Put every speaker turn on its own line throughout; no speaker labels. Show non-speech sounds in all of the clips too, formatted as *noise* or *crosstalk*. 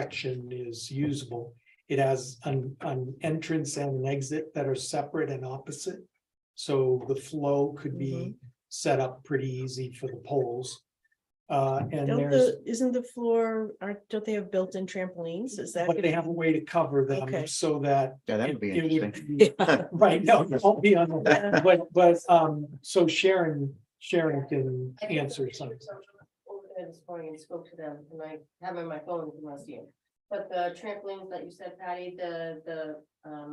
section is usable. It has an, an entrance and an exit that are separate and opposite. So the flow could be
Mm-hmm.
set up pretty easy for the poles. Uh, and
Don't
there's,
the, isn't the floor, aren't, don't they have built-in trampolines? Is that?
but they
gonna-
have a way to cover them
Okay.
so that.
Yeah, that would be
it- it would
interesting.
*laughs*
be- *laughs* Right, no, it won't be on,
*laughs*
the- but, but, um, so Sharon, Sharon can answer something.
Over there this morning and spoke to them, and I have it on my phone, if you want to see it. But the trampolines that you said, Patty, the, the, um,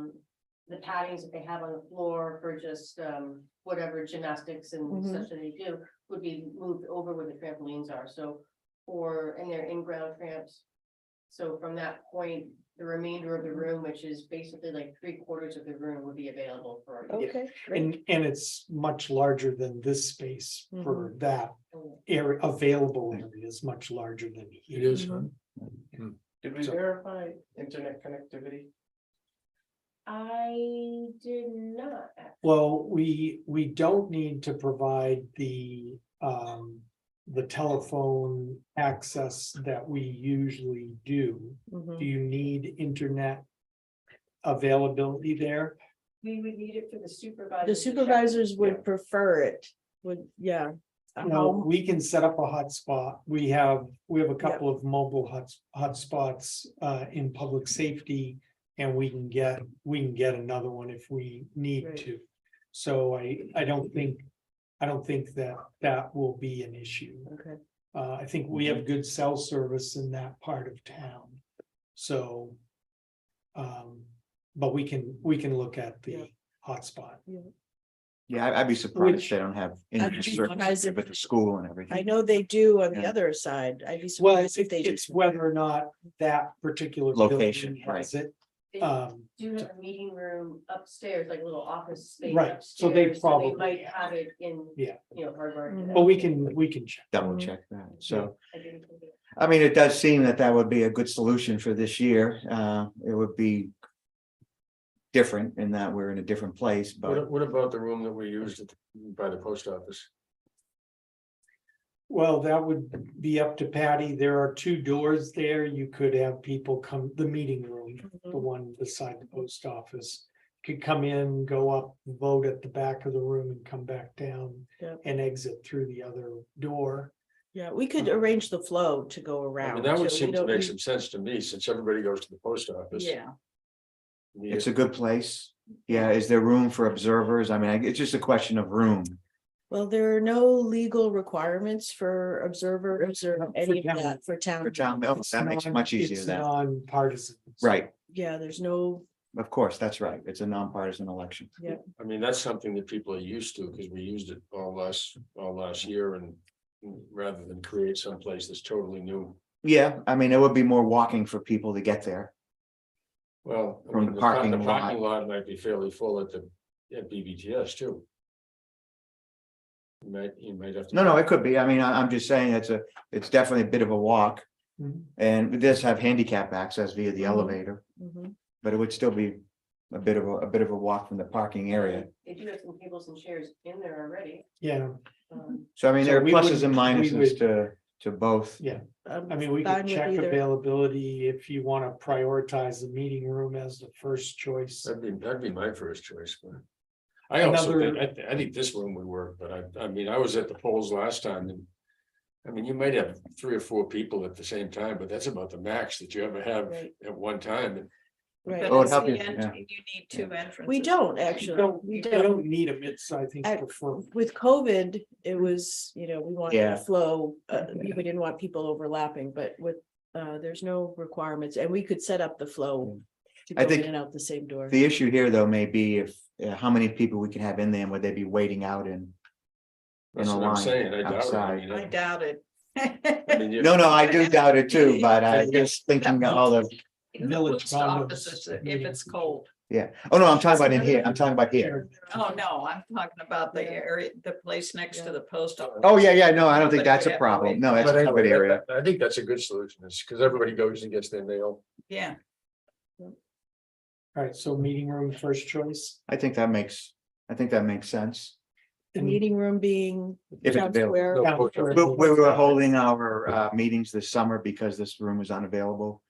the paddings that they have on the floor for just, um, whatever gymnastics and
Mhm.
such that they do, would be moved over where the trampolines are, so, or, and they're in-ground tramps. So from that point, the remainder of the room, which is basically like three quarters of the room, would be available for.
Okay, great.
And, and it's much larger than this space for
Mm-hmm.
that area, available area is much larger than. It
is, huh?
Did we
So-
verify internet connectivity?
I did not. act-
Well, we, we don't need to provide the, um, the telephone access that we usually do. Do
Mhm.
you need internet availability there?
We would need it for the supervisor.
The supervisors would prefer it, would, yeah.
No,
Um,
we can set up a hotspot. We have, we have a couple of mobile hots, hotspots, uh, in public safety. And we can get, we can get another one if we need
Right.
to. So I, I don't think, I don't think that that will be an issue.
Okay,
Uh, I think we
Mm-hmm.
have good cell service in that part of town. So. Um, but we can, we can look at
Yeah.
the hotspot.
Yeah, I- I'd be surprised they don't have.
be
internet
surprised
service
if-
With the school and
I
everything.
know they do on the
Yeah.
other side. I'd be
Well,
surprised
it's,
if they. do.
it's whether or not that particular. building
Location,
has it.
They
Um,
do have a meeting room upstairs, like a little office space.
Right, so they
upstairs,
probably-
Might have it in.
Yeah.
You know, Harvard.
Mhm.
but we can, we can check.
Double check that. So,
I didn't think it-
I mean, it does seem that that would be a good solution for this year. Uh, it would be. Different in that we're in a different place, but
What, what about the room that we used at the- by the post office?
Well, that would be up to Patty. There are two doors there. You could have people come, the meeting room. the
Mhm.
one beside the post office. Could come in, go up, vote at the back of the room and come back down
Yep.
and exit through the other door.
Yeah, we could
Uh-huh.
arrange the flow to go
I
around.
mean,
so
that
we
would seem to
don't
make
need-
some sense to me, since everybody goes to the post office.
Yeah,
We-
it's a good place. Yeah, is there room for observers? I mean, I- it's just a question of room.
well, there are no legal requirements for observers or
For
any of
town-
that for town.
For John, Bill,
It's
that makes it
non-
much easier
it's
then.
Non-partisan.
Right,
Yeah, there's no,
of course, that's right. It's a nonpartisan election.
I mean, that's something that people are used to, because we used it all last, all last year, and rather than create someplace that's totally new.
Yeah, I mean, it would be more walking for people to get there.
Well. I
From
mean,
the
par-
parking lot.
Parking lot might be fairly full at the, at BBTS too. You might, you might have to.
No, no, it could be. I mean, I, I'm just saying it's a, it's definitely a bit of a walk.
Mhm.
And it does have handicap access via the
Mhm.
elevator,
mhm.
but it would still be a bit of a, a bit of a walk from the parking area.
They do have some tables and chairs in there already.
Yeah,
um,
So I mean,
So
there are
we
pluses and
would- we
minuses to, to both.
I'm
I mean, we
fine
could
Um, with
check
either.
availability if you want to prioritize the meeting room as the first choice.
That'd be, that'd be my first choice, but. I also
Another-
think, I, thi- I think this room would work, but I, I mean, I was at the polls last time and. I mean, you might have three or four people at the same time, but that's about the max that you ever have
Right,
at one time. And
right.
Oh, It would help you, yeah.
Need two entrances.
We don't
You
actually,
don't,
we
you
don't.
don't need them. It's, I think,
I-
prefer.
With COVID, it was, you know, we wanted
Yeah.
to flow, uh, we didn't want people overlapping, but with, uh, there's no requirements and we could set up the flow. To go
I
in
think
and out the same door.
The issue here though may be if, uh, how many people we can have in there and would they be waiting out in?
that's
a
what I'm
line
saying. I doubt it. I
outside.
mean, I-
doubt it.
I mean, you-
No, no, I do doubt it too, but I just thinking all the,
Village offices, if it's cold.
yeah. Oh, no, I'm talking about in here. I'm talking about here.
Oh, no, I'm talking about the
Yeah.
area, the place next
Yeah.
to the post office.
Oh, yeah, yeah, no, I don't think
But
that's
we
a
have to
problem.
wait.
No, that's
But
a
anyway,
covered area.
that- that- I think that's a good solution, is because everybody goes and gets their mail.
Yeah,
All right, so meeting room first choice.
I think that makes, I think that makes sense.
And
Meeting room being.
If it's
town
available.
square.
No,
Yeah,
post
sure.
office.
But we were holding our uh meetings this summer because this room was unavailable.